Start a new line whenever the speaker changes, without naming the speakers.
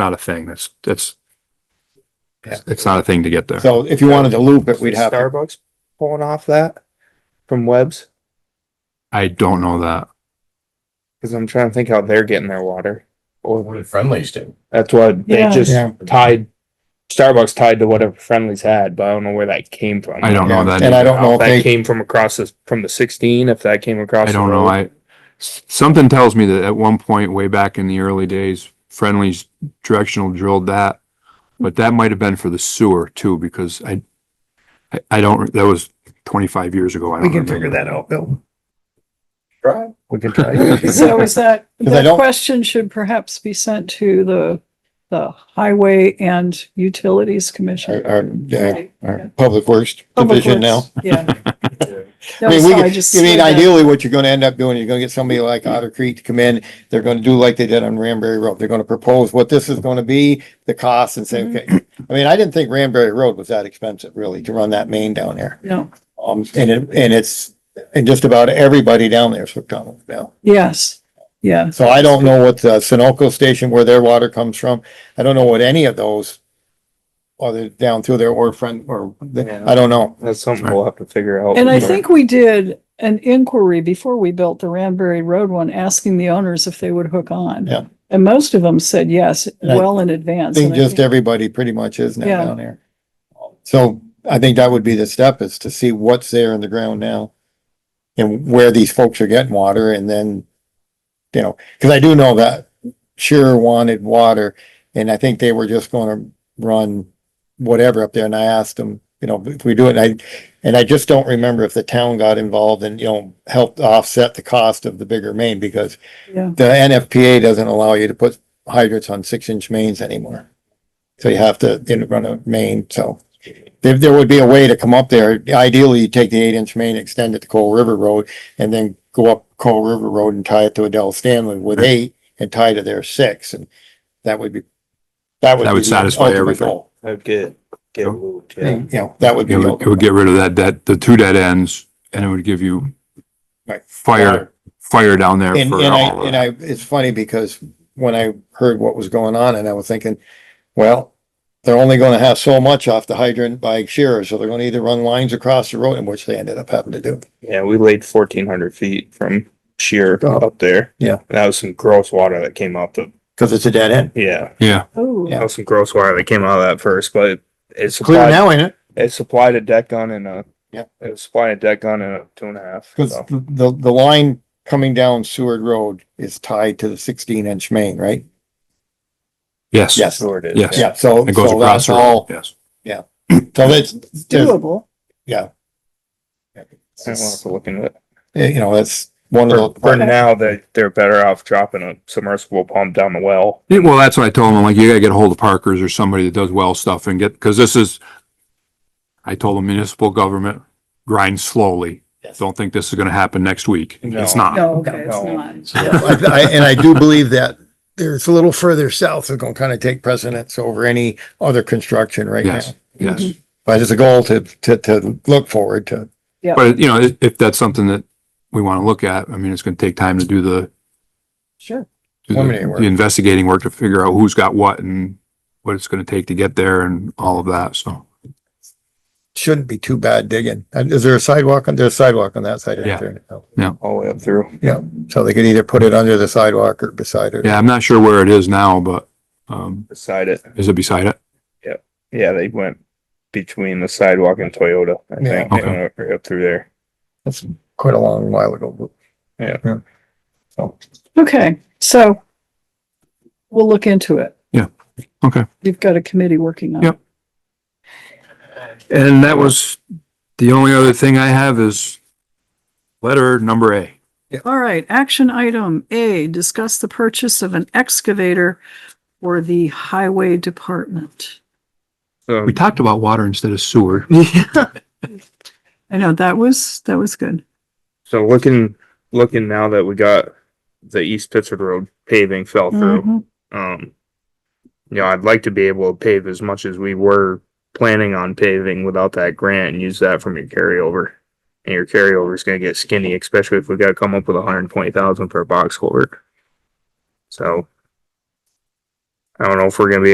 not a thing. That's, that's,
Yeah.
it's not a thing to get there.
So if you wanted to loop it, we'd have,
Starbucks pulling off that from Webs,
I don't know that.
because I'm trying to think how they're getting their water.
What
Or
did friendlies do?
that's what they
Yeah.
just
Yeah.
tied. Starbucks tied to whatever friendlies had, but I don't know where that came from.
I don't know
Yeah,
that.
and I
either.
don't know if
If that
they,
came from across this from the 16, if that came across.
I
the
don't know.
road.
I, s- something tells me that at one point way back in the early days, Friendly's directional drilled that. But that might have been for the sewer too, because I, I, I don't, that was twenty-five years ago. I
We can
don't remember.
figure that out, Bill.
Right.
We can try.
So is that,
'Cause I
that
don't-
question should perhaps be sent to the, the Highway and Utilities Commission.
our, our, yeah,
Right, yeah.
our Public Works
Public
Uh, Division now.
Works, Yeah.
I
No,
mean,
so
we,
I
could-
just
I mean,
said that.
ideally, what you're gonna end up doing, you're gonna get somebody like Otter Creek to come in, they're gonna do like they did on Ranberry Road, they're gonna propose what this is gonna be, the cost and say, okay.
Mm-hmm.
I mean, I didn't think Ranberry Road was that expensive really to run that main down there.
No,
Um, and it, and it's, and just about everybody down there is hooked on it now.
yes, yeah,
So I don't know what the Sunoco station, where their water comes from. I don't know what any of those other down through there or friend or,
Yeah.
I don't know.
That's something we'll have to figure out.
and I think we did an inquiry before we built the Ranbury Road one, asking the owners if they would hook on.
Yeah.
And most of them said yes,
And I
well in
I
advance.
think
and I
just
think-
everybody pretty much is now
Yeah.
down there. So I think that would be the step is to see what's there in the ground now and where these folks are getting water and then, you know, cause I do know that Sure wanted water and I think they were just gonna run whatever up there and I asked them, you know, if we do it, and I, and I just don't remember if the town got involved and, you know, helped offset the cost of the bigger main because
Yeah,
the NFPA doesn't allow you to put hydrants on six inch mains anymore. So you have to you know, run a main, so there, there would be a way to come up there. Ideally, you take the eight inch main, extend it to Coal River Road and then go up Coal River Road and tie it to Adele Stanley with eight and tie to their six and that would be.
That would
be the
satisfy
ultimate
everything.
goal.
I'd get, get moved, yeah.
You know, that would be.
It
the
would, it
ultimate
would get rid of that, that, the two dead ends and it would give you
Right.
fire, fire down there
And,
for
and I,
all of
and
that.
I, it's funny because when I heard what was going on and I was thinking, well, they're only gonna have so much off the hydrant by Shearer, so they're gonna either run lines across the road and which they ended up having to do.
Yeah, we laid fourteen hundred feet from sheer
Oh.
up there.
Yeah.
And That was some gross water that came out the,
Cause it's a dead end.
yeah,
Yeah,
oh,
Yeah.
that was some gross water that came out of that first, but it- it
Clear
supplied,
now, ain't it?
it supplied a deck gun and a.
Yeah.
It supplied a deck gun and a two and a half.
Cause
so.
the, the, the line coming down Seward Road is tied to the sixteen inch main, right?
yes.
Yes.
Sure it is,
Yes.
yeah.
Yeah, so,
It goes
so
across
that's
the road,
all,
yes.
so that's, there's-
doable.
I don't have to look into it.
you know, that's one
For,
of
for
the,
now, they, they're better off dropping a submersible pump down the well.
Yeah, well, that's what I told him. I'm like, you gotta get a hold of Parkers or somebody that does well stuff and get, cause this is, I told him municipal government grind slowly.
Yes.
Don't think this is gonna happen next week. It's
No.
not.
No, okay, it's
No.
not.
I, I- and I do believe that there's a little further south is gonna kind of take precedence over any other construction right now.
Yes, yes.
But it's a goal to, to, to look forward to.
But, you know, if, if that's something that we wanna look at, I mean, it's gonna take time to do the,
Sure.
do
Preliminary
the
work.
the investigating work to figure out who's got what and what it's gonna take to get there and all of that, so.
Shouldn't be too bad digging. And is there a sidewalk on, there's a sidewalk on that side?
Yeah.
of there now.
All the way up through.
So they could either put it under the sidewalk or beside it.
Yeah, I'm not sure where it is now, but, um,
Beside it.
is it beside it?
Yeah, they went between the sidewalk and Toyota, I
Yeah.
think, and up- right up through there.
That's quite a long while ago.
Okay, so we'll look into it.
Yeah, okay.
You've got a committee working on it.
Yep. And that was, the only other thing I have is letter number A.
All right, action item A, discuss the purchase of an excavator for the highway department.
So
We talked about water instead of sewer.
I know, that was, that was good.
So looking, looking now that we got the East Pittsford Road paving fell through,
Mhm.
um, you know, I'd like to be able to pave as much as we were planning on paving without that grant and use that from your carryover. And your carryover is gonna get skinny, especially if we gotta come up with a hundred and twenty thousand for a box culvert. So I don't know if we're gonna be